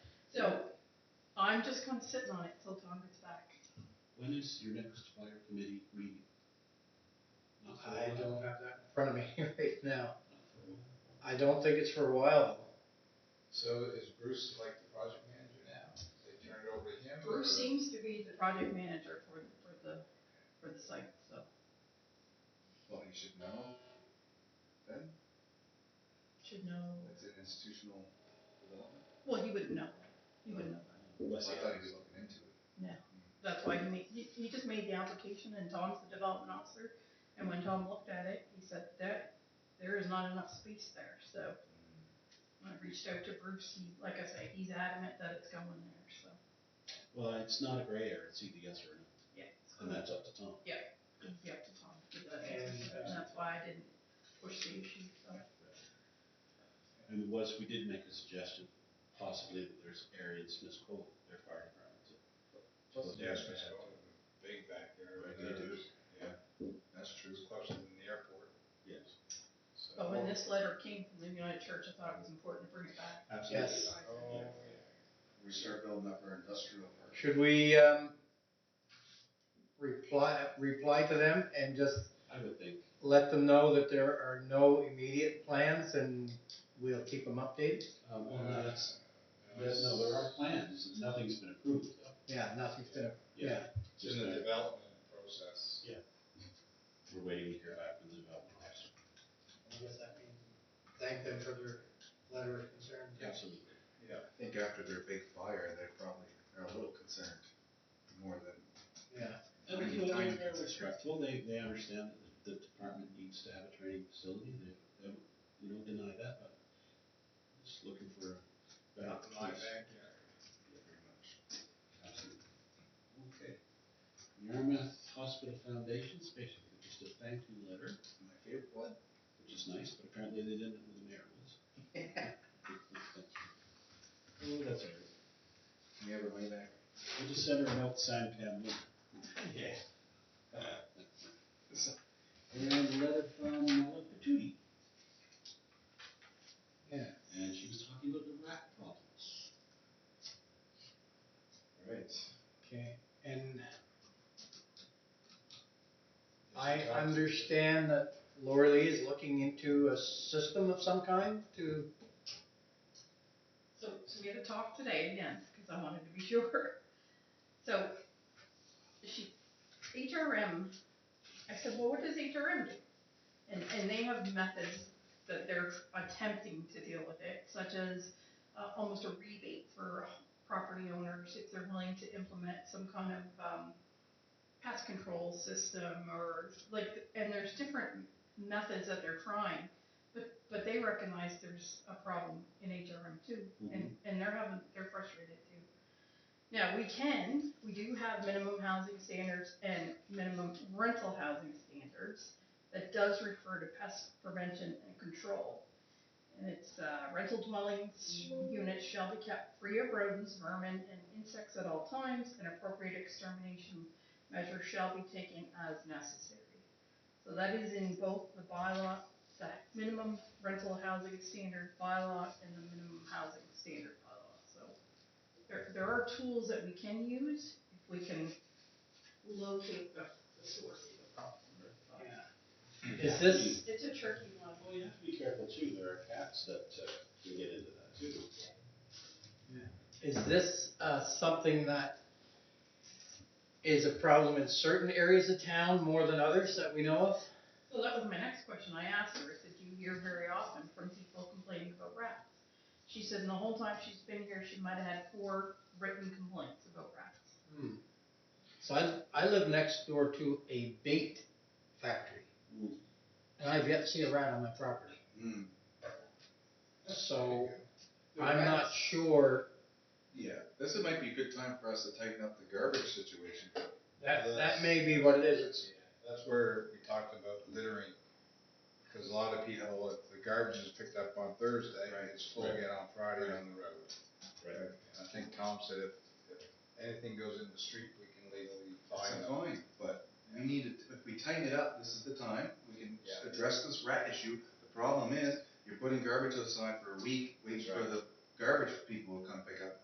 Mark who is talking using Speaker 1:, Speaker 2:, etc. Speaker 1: So I'm just kind of sitting on it till Tom gets back.
Speaker 2: When is your next fire committee meeting? Not for a
Speaker 3: I
Speaker 2: while.
Speaker 3: don't have that in front of me right now. I don't think it's for a while.
Speaker 4: So is Bruce like the project manager now? They turn it over to him? or-
Speaker 1: Bruce seems to be the project manager for, for the, for the site, so.
Speaker 4: Well, he should know. Then,
Speaker 1: Should know,
Speaker 4: it's an institutional development.
Speaker 1: well, he wouldn't know, he wouldn't know.
Speaker 4: I
Speaker 2: Unless he-
Speaker 4: thought he was looking into it.
Speaker 1: That's why he made, he, he just made the application and Tom's the development officer. And when Tom looked at it, he said that there is not enough space there, so. When I reached out to Bruce, he, like I say, he's adamant that it's going there, so,
Speaker 2: Well, it's not a gray area, it's either yes or no,
Speaker 1: yeah. it's
Speaker 2: and that's up to Tom.
Speaker 1: gonna be up to Tom to get that
Speaker 3: And,
Speaker 1: answer,
Speaker 3: uh,
Speaker 1: and that's why I didn't push the issue, so.
Speaker 2: And there was, we did make a suggestion, possibly that there's an area in Smith's Cove, their fire department, too.
Speaker 4: Plus,
Speaker 2: Yeah,
Speaker 4: yeah,
Speaker 2: it's
Speaker 4: it's
Speaker 2: bad.
Speaker 4: big back there.
Speaker 2: Right,
Speaker 4: and
Speaker 2: they do.
Speaker 4: there's- Yeah, that's true. It's closer than the airport,
Speaker 2: Yes.
Speaker 4: so.
Speaker 1: But when Oh, this letter came from the United Church, I thought it was important to bring it back.
Speaker 2: Absolutely.
Speaker 3: Yes.
Speaker 4: Oh,
Speaker 5: we start building up our industrial park.
Speaker 3: Should we, um, reply, reply to them and just
Speaker 2: I would think,
Speaker 3: let them know that there are no immediate plans and we'll keep them updated?
Speaker 2: um, well,
Speaker 4: Uh,
Speaker 2: no, that's, that- no, there are plans, nothing's been approved, though.
Speaker 3: Yeah, nothing's gonna, yeah,
Speaker 4: It's
Speaker 2: Just
Speaker 4: in the
Speaker 2: that
Speaker 4: development process.
Speaker 2: we're waiting to hear back from the development officer.
Speaker 6: I guess that means thank them for their letter of concern.
Speaker 2: Absolutely.
Speaker 4: Yeah.
Speaker 5: I think after their big fire, they probably are a little concerned more than.
Speaker 3: yeah.
Speaker 2: And
Speaker 5: Time-
Speaker 2: you know, they're
Speaker 5: time
Speaker 2: very
Speaker 5: constraint.
Speaker 2: respectful, they, they understand that the department needs to have a training facility, they, they, don't, you know, deny that, but just looking for a better
Speaker 4: Not in my
Speaker 2: place.
Speaker 4: backyard.
Speaker 5: Pretty much.
Speaker 2: Absolutely. Okay. Yarmouth Hospital Foundation, it's basically just a thank you letter,
Speaker 5: My favorite one,
Speaker 2: which is nice, but apparently they didn't know who the mayor was. Oh, that's all right.
Speaker 5: can you ever lay back?
Speaker 2: We'll just send her a note signed Pam Luke. Yeah. And a letter from Paula Patootie. Yeah, and she was talking about the rat problems.
Speaker 4: Right.
Speaker 3: Okay, and I understand that Laura Lee is looking into a system of some kind to,
Speaker 1: So, so we had a talk today again, because I wanted to be sure. So, she, HRM, I said, well, what does HRM do? And, and they have methods that they're attempting to deal with it, such as, uh, almost a rebate for property owners if they're willing to implement some kind of, um, pest control system or like, and there's different methods that they're trying. But, but they recognize there's a problem in HRM too, and, and they're having, they're frustrated too. Now, we can, we do have minimum housing standards and minimum rental housing standards that does refer to pest prevention and control. And it's, uh, rental dwellings, units shall be kept free of rodents, vermin, and insects at all times, and appropriate extermination measures shall be taken as necessary. So that is in both the bylaw that minimum rental housing standard bylaw and the minimum housing standard bylaw, so. There, there are tools that we can use if we can locate the, the source of the problem. but-
Speaker 3: is this,
Speaker 1: It's a tricky one.
Speaker 2: Well, you have to be careful too, there are cats that, uh, can get into that too.
Speaker 3: is this, uh, something that is a problem in certain areas of town more than others that we know of?
Speaker 1: So that was my next question I asked her, I said, do you hear very often from people complaining about rats? She said, in the whole time she's been here, she might have had four written complaints about rats.
Speaker 3: Hmm. So I, I live next door to a bait factory.
Speaker 2: Hmm.
Speaker 3: And I've yet to see a rat on my property.
Speaker 5: Hmm,
Speaker 3: So
Speaker 5: The
Speaker 3: I'm not
Speaker 5: rats-
Speaker 3: sure,
Speaker 5: Yeah, this might be a good time for us to tighten up the garbage situation.
Speaker 3: that, that may be what it is, it's
Speaker 4: Yeah, That's where we talked about littering, because a lot of people, if the garbage is picked up on Thursday,
Speaker 5: Right.
Speaker 4: it's full again on Friday
Speaker 5: Right.
Speaker 4: on the road. And I think Tom said if, if anything goes in the street, we can legally fine
Speaker 5: It's
Speaker 4: them.
Speaker 5: fine, but we need to, if we tighten it up, this is the time, we can
Speaker 4: Yeah.
Speaker 5: address this rat issue. The problem is, you're putting garbage aside for a week, waiting
Speaker 4: That's
Speaker 5: for
Speaker 4: right.
Speaker 5: the garbage people to come pick up